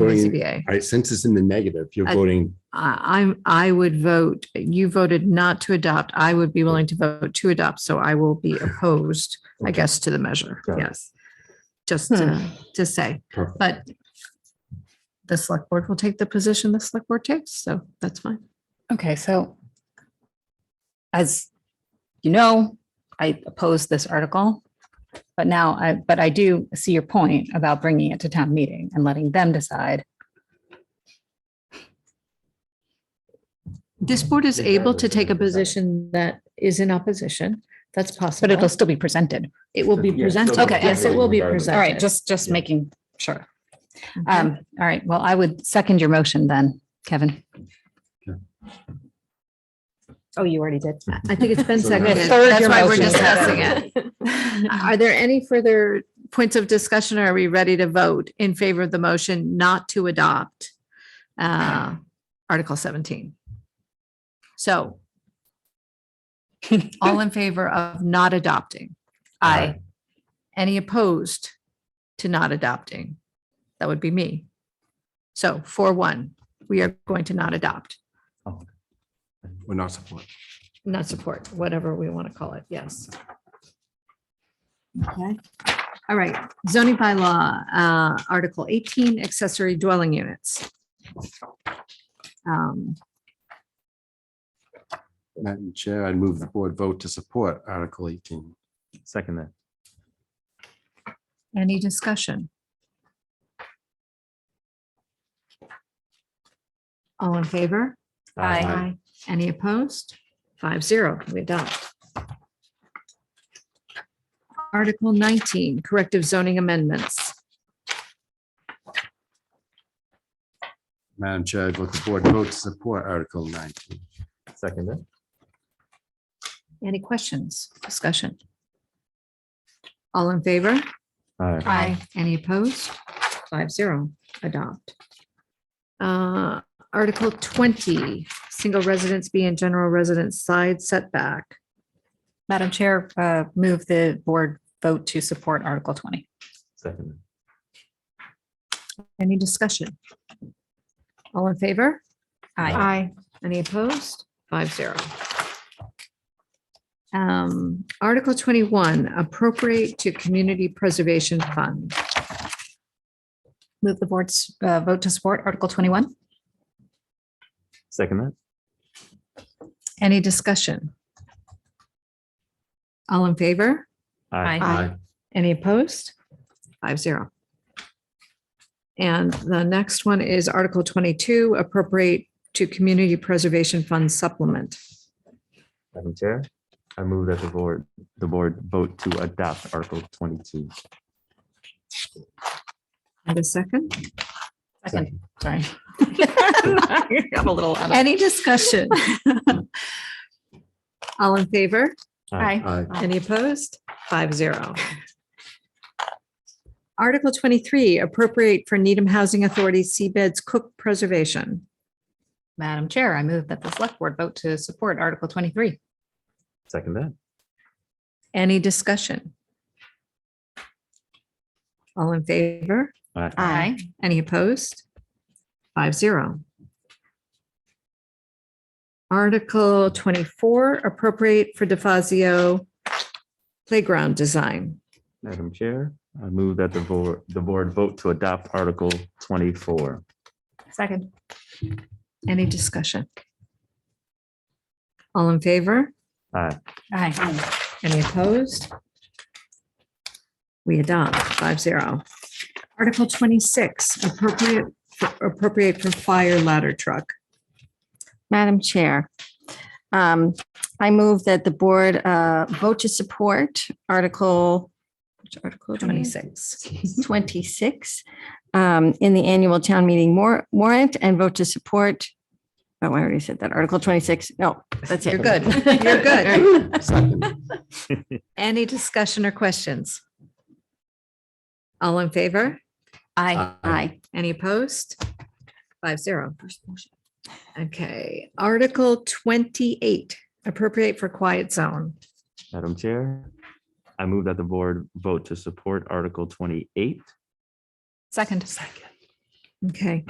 voting, SBA. all right, since it's in the negative, you're I- voting, I, I, I would vote, you voted not to adopt. I would be willing to vote to adopt, so I will be opposed, I guess, to the measure. Got it. Yes. Just to, to say, Perfect. but the select board will take the position the select board takes, so that's fine. Okay, so as you know, I opposed this article. But now I, but I do see your point about bringing it to town meeting and letting them decide. This board is able to take a position that is in opposition. That's But it'll possible. still be presented. It will be Yeah, so- presented. Okay. Yes, it will be Regardless. presented. All right, just, just making sure. Okay. Um, all right, well, I would second your motion then, Kevin. Oh, you already did. I think it's been So now- seconded. Third That's your why we're motion. discussing it. Are there any further points of discussion? or Are we ready to vote in favor of the motion not to adopt uh, Article 17? So all in favor of not adopting? Aye. Any opposed to not adopting? That would be me. So 4-1, we are going to not adopt, we're not supporting. not support, whatever we want to call it. Yes. Okay. All right, zoning bylaw, uh, Article eighteen, accessory dwelling units. Um, Madam Chair, I'd move the board vote to support Article eighteen. Second that. any discussion? All in favor? Aye. Any opposed? Five zero, we adopt. Article nineteen, corrective zoning amendments. Madam Chair, I'd let the board vote to support Article nineteen. Second that. Any questions, discussion? All in favor? Aye. Aye. Any opposed? Five zero, adopt. Uh, Article twenty, single residence B and general residence side setback. Madam Chair, uh, move the board vote to support Article 20. Second that. Any discussion? All in favor? Aye. Aye. Any opposed? Five zero. Um, Article twenty-one, appropriate to community preservation fund. Move the board's uh, vote to support Article 21. Second that. Any discussion? All in favor? Aye. Any opposed? Five zero. And the next one is Article twenty-two, appropriate to Community Preservation Fund supplement. Madam Chair, I move that the board, the board vote to adopt Article twenty-two. And a second, Second, sorry. I'm a little. out of- any discussion? All in favor? Aye. Aye. Any opposed? Five zero. Article twenty-three, appropriate for Needham Housing Authority Seabeds Cook Preservation. Madam Chair, I move that the select board vote to support Article 23. Second that. Any discussion? All in favor? Aye. Aye. Any opposed? Five zero. Article twenty-four, appropriate for DeFazio playground design. Madam Chair, I move that the board, the board vote to adopt Article twenty-four. Second. Any discussion? All in favor? Aye. Aye. Any opposed? We adopt five zero. Article twenty-six, appropriate, appropriate for fire ladder truck. Madam Chair, um, I move that the board uh, vote to support Article, which article? it is? Twenty-six. 26 um, in the annual town meeting war- warrant and vote to support. Oh, I already said that. Article 26. No, that's it. You're good. You're good. Second. Any discussion or questions? All in favor? Aye. Aye. Any opposed? Five zero. Okay, Article twenty-eight, appropriate for quiet zone. Madam Chair, I move that the board vote to support Article twenty-eight. Second. Okay.